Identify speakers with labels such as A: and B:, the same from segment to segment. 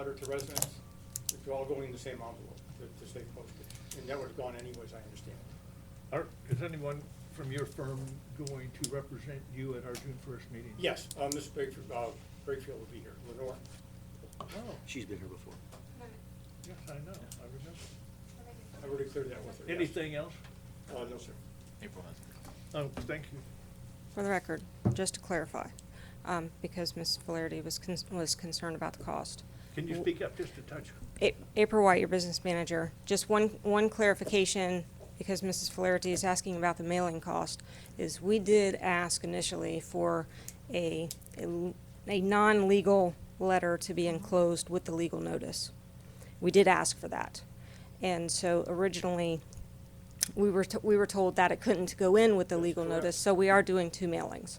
A: letter to residents, if you're all going in the same envelope to, to stay posted. And that was gone anyways, I understand.
B: Are, is anyone from your firm going to represent you at our June first meeting?
A: Yes, uh, Ms. Brakefield, uh, Brakefield will be here, Lenore.
B: Oh,
C: She's been here before.
B: yes, I know, I remember.
A: I already cleared that with her. yes.
B: Anything else?
A: Uh, no, sir.
D: April has.
B: Oh, thank you.
E: For the record, just to clarify, um, because Ms. Valerdi was, con- was concerned about the cost.
B: Can you speak up just a touch?
E: A- April White, your business manager, just one, one clarification, because Mrs. Flaherty is asking about the mailing cost, is we did ask initially for a, a l- a non-legal letter to be enclosed with the legal notice. We did ask for that. And so originally, we were, t- we were told that it couldn't go in with the
A: That's
E: legal
A: correct.
E: notice, so we are doing two mailings.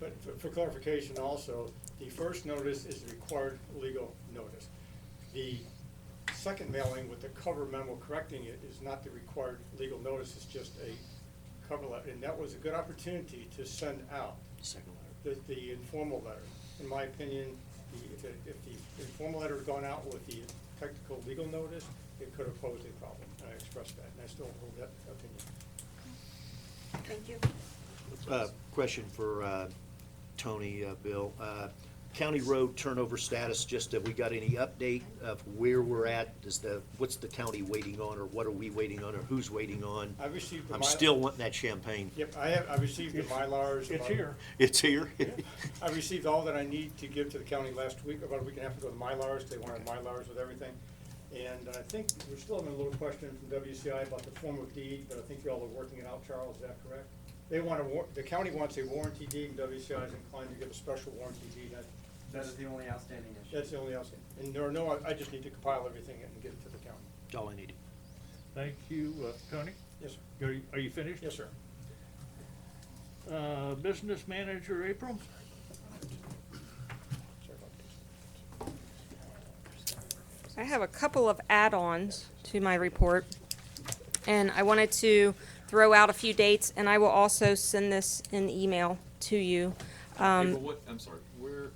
A: But for- for clarification also, the first notice is the required legal notice. The second mailing with the cover memo correcting it is not the required legal notice, it's just a cover letter. And that was a good opportunity to send out
C: Second letter.
A: the, the informal letter. In my opinion, the, if, the- if the informal letter had gone out with the technical legal notice, it could have posed a problem. And I expressed that, and I still hold that opinion.
E: Thank you.
C: Uh, Question for uh, Tony, uh, Bill. Uh, County road turnover status, just have we got any update of where we're at? Does the, what's the county waiting on, or what are we waiting on, or who's waiting on?
A: I received the.
C: I'm
A: Mylar-
C: still wanting that champagne.
A: Yep, I have, I received the Mylars.
B: It's
A: about-
B: here.
C: It's here?
A: I received all that I need to give to the county last week, about a week and a half ago, the Mylars, they wanted Mylars with everything. And I think we're still having a little question from WCI about the form of deed, but I think y'all are working it out, Charles, is that correct? They want a war, the county wants a warranty deed, and WCI is inclined to give a special warranty deed, That-
D: That is the only outstanding issue.
A: that's the only outstanding. And there are no, I- I just need to compile everything and get it to the county.
C: All I needed.
B: Thank you, uh, Tony.
A: Yes, sir.
B: Are you, are you finished?
A: Yes, sir.
B: Uh, business manager, April?
A: Sorry about that.
E: I have a couple of add-ons to my report, and I wanted to throw out a few dates, and I will also send this in email to you. Um,
D: April, what, I'm sorry, where,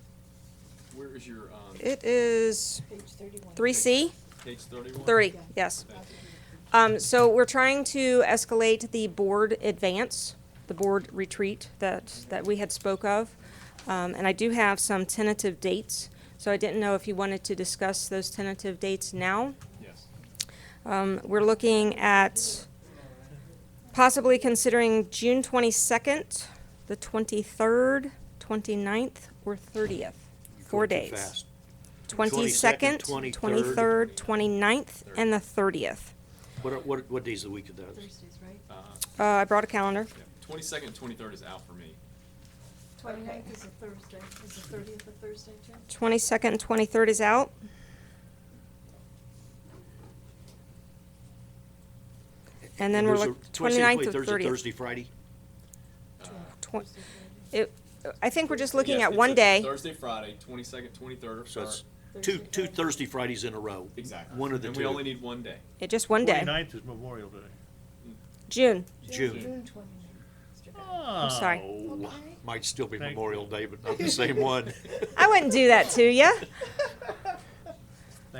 D: where is your, um,
E: It is
F: Page thirty-one.
E: three C,
D: page thirty-one?
E: thirty, yes.
D: Thank you.
E: Um, so we're trying to escalate the board advance, the board retreat that, that we had spoke of. Um, and I do have some tentative dates, so I didn't know if you wanted to discuss those tentative dates now.
D: Yes.
E: Um, we're looking at possibly considering June twenty-second, the twenty-third, 29th, or thirtieth.
C: You're
E: Four
C: going too
E: days.
C: fast.
E: Twenty-second,
C: 22nd,
E: twenty-third, 29th, and the thirtieth.
C: What, are- what, what days of the week are those?
F: Thursdays, right?
E: Uh, I brought a calendar.
D: Twenty-second, twenty-third is out for me.
F: Twenty-ninth is a Thursday. Is the thirtieth a Thursday too?
E: Twenty-second and twenty-third is out. And then we're
C: Those are-
E: looking
C: 22nd,
E: 29th and
C: 23rd,
E: thirtieth.
C: Thursday, Friday?
D: Uh,
E: Tw-
F: Thursday, Friday.
E: it- I think we're just looking
D: yes,
E: at
D: it's
E: one
D: a
E: day.
D: Thursday, Friday, twenty-second, twenty-third.
C: So it's two,
F: Thursday,
C: two
F: Friday.
C: Thursday Fridays in a row.
D: Exactly.
C: One of the two.
D: And we only need one day.
E: Yeah, Just one day.
B: Twenty-ninth is Memorial Day.
E: June.
C: June.
F: June twenty-ninth.
B: I'm
E: sorry.
C: Might still be
B: Thank you.
C: Memorial Day, but not the same one.
E: I wouldn't do that to you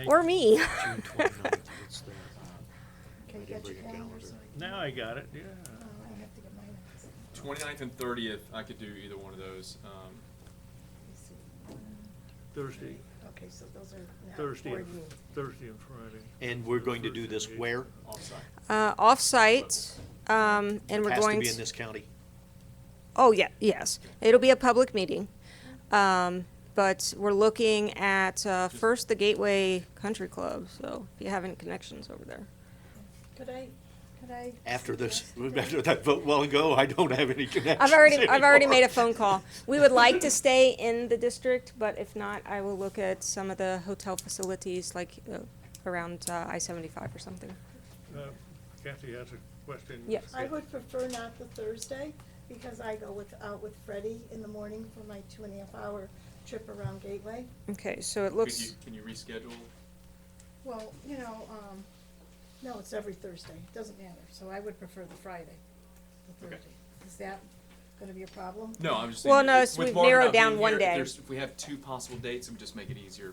E: or me.
C: June 29th, it's the- I
F: Can you
C: didn't
F: get your
C: bring a
F: calendar
C: calendar.
F: so I can?
B: Now I got it, yeah.
F: Oh, I have to get mine. Let
D: Twenty-ninth and thirtieth, I could do either one of those. Um,
F: me see. One,
B: Thursday,
F: Okay, so those are.
B: Thursday,
F: board
B: and-
F: meeting.
B: Thursday and Friday.
C: And we're going to do this
B: Thursday.
C: where?
D: offsite.
E: Uh, off-site, um, and we're
C: Has to
E: going
C: be in
E: to,
C: this county.
E: oh, yeah, yes. It'll be a public meeting. Um, but we're looking at, uh, first the Gateway Country Club, so if you have any connections over there.
F: Could I, could I?
C: After this,
F: suggest that-
C: after that vote well ago, I don't have any connections
E: I've already, I've already
C: anymore.
E: made a phone call. We would like to stay in the district, but if not, I will look at some of the hotel facilities, like, uh, around, uh, I-75 or something.
B: Uh, Kathy has a question.
E: Yes.
F: I would prefer not the Thursday, because I go with, out with Freddie in the morning for my two and a half hour trip around Gateway.
E: Okay, so it
D: Could you,
E: looks,
D: can you reschedule?
F: Well, you know, um, no, it's every Thursday, it doesn't matter, so I would prefer the Friday, the
D: Okay.
F: Thursday. Is that gonna be a problem?
D: No, I'm just saying.
E: Well, no,
D: with-
E: it's-
D: with
E: we've
D: Marvin
E: narrowed
D: not being
E: down one
D: here, if
E: day.
D: there's- If we have two possible dates, it would just make it easier